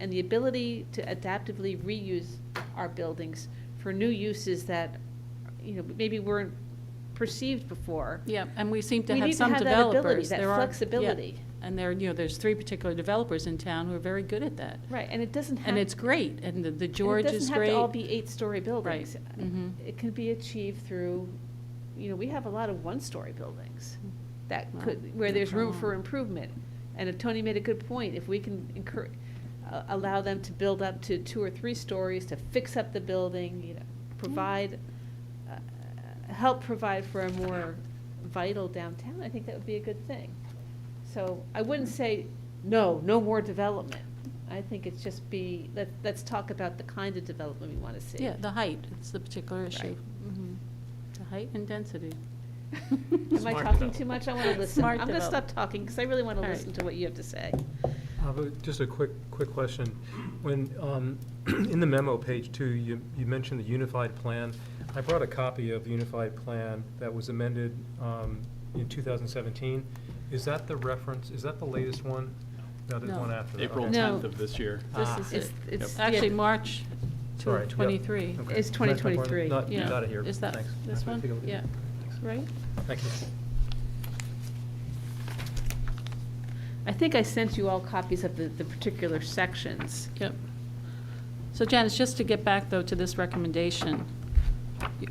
and the ability to adaptively reuse our buildings for new uses that, you know, maybe weren't perceived before. Yeah, and we seem to We need have to some have that ability, developers. that There are- yeah. flexibility. And there, you know, there's three particular developers in town who are very good at that. Right, and it doesn't have. And it's great, and the- the and George is It doesn't have great. to all be eight-story buildings. mhm. It can be achieved through, you know, we have a lot of one-story buildings that Well, could, where no there's room problem. for improvement. And Tony made a good point, if we can encourage, allow them to build up to two or three stories, to fix up the building, you know, provide, uh, help provide for a more vital downtown, I think that would be a good thing. So I wouldn't say, no, no more development. I think it's just be, let, let's talk about the kind of development we want to see. Yeah, the height, it's the particular issue. Right. Mhm. The height and density. Am I Smart talking too development. much? I want to listen. I'm Smart going to stop development. talking because I really want to All right. listen to what you have to say. Uh, but Just a quick, quick question. When, um, in the memo, page two, you, you mentioned the unified plan. I brought a copy of the unified plan that was amended um, in 2017. Is that the reference, is that the latest one? No, there's No. one after that. April okay. No. 10th of this year. Ah. This It's- is it. it's- Actually, yeah. March two Sorry, of yep, twenty-three. okay. It's That's my point. 2023, Not- Yeah. Got it here, Is that thanks. this I'll take a one? look at it. Yeah, right? Thank you. I think I sent you all copies of the, the particular sections. Yep. So Janice, just to get back, though, to this recommendation,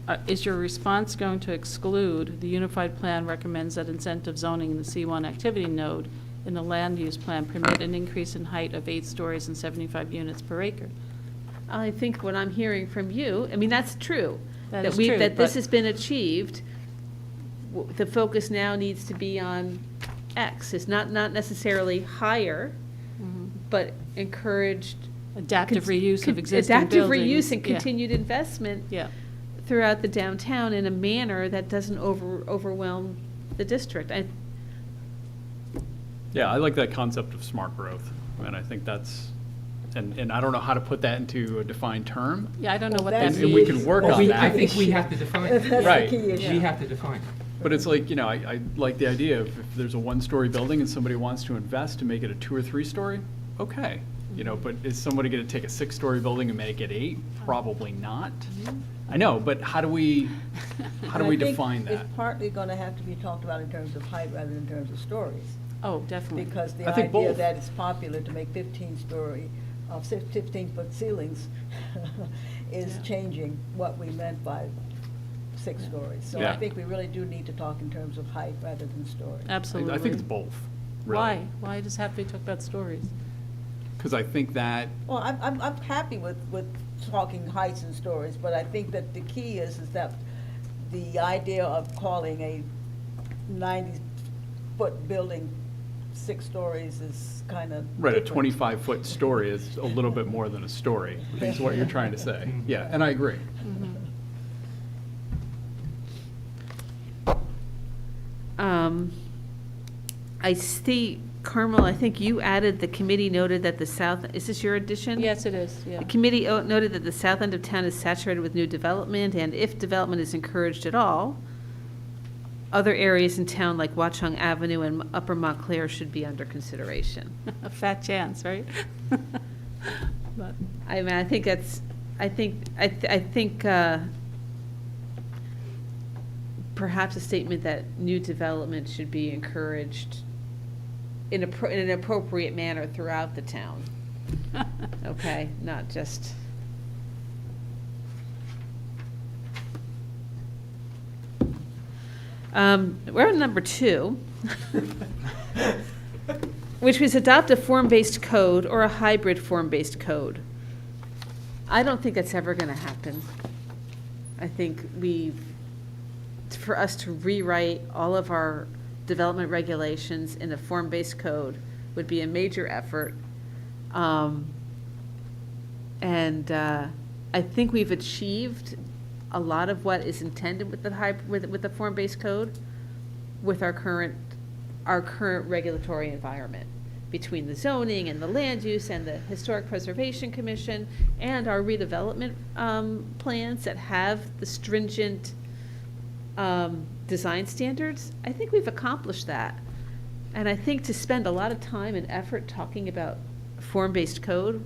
uh, is your response going to exclude, the Unified Plan recommends that incentive zoning in the C1 activity node in the land use plan permit an increase in height of eight stories and 75 units per acre? I think what I'm hearing from you, I mean, that's true. That is we- true, That this but- has been achieved. W- The focus now needs to be on X. It's not, not necessarily higher, but encouraged. Adaptive cons- reuse Mm-hmm. con- of existing buildings. Adaptive reuse and Yeah. continued investment. Yeah, throughout the downtown in a manner that doesn't over, overwhelm the district. I, Yeah, I like that concept of smart growth, and I think that's, and, and I don't know how to put that into a defined term. yeah, I don't know what Well, that And means. that's- and we can work Well, on we- that. I think we have to define it. That's Right. the key issue. Yeah. We have to define it. But it's like, you know, I, I like the idea of if there's a one-story building and somebody wants to invest to make it a two or three-story, okay. You know, but is somebody gonna take a six-story building and make it eight? Probably not. I know, but how do we, how do And I we think define that? It's partly going to have to be talked about in terms of height rather than in terms of stories, Oh, definitely. because the Hmm. I think idea both. that it's popular to make uh, fifteen-story, fifteen-foot ceilings is Yeah. changing what we meant by six Yeah. stories. So I Yeah. think we really do need to talk in terms of height rather than story. Absolutely. I- I think it's both, really. Why? Why does it have to be talked about stories? Because I think that Well, I'm, I'm, I'm happy with, with talking heights and stories, but I think that the key is, is that the idea of calling a ninety-foot building six stories is kind of. Right, a different. 25-foot story is a little bit more than a story, I think is what you're trying to say. Yeah, and I agree. um, I see, Carmel, I think you added, the committee noted that the south, is this your addition? Yes, it is, yeah. The committee o- noted that the south end of town is saturated with new development, and if development is encouraged at all, other areas in town like Watchung Avenue and Upper Montclair should be under consideration. A fat chance, right? But, I mean, I think that's, I think, I, th- I think, uh, perhaps a statement that new development should be encouraged in a, pro- in an appropriate manner throughout the town, okay? Not just, um, we're on number two. Which was adopt a form-based code or a hybrid form-based code. I don't think that's ever gonna happen. I think we, for us to rewrite all of our development regulations in a form-based code would be a major effort. Um, And uh, I think we've achieved a lot of what is intended with the hyb, with, with the form-based code with our current, our current regulatory environment, between the zoning and the land use and the Historic Preservation Commission and our redevelopment um, plans that have the stringent um, design standards, I think we've accomplished that. And I think to spend a lot of time and effort talking about form-based code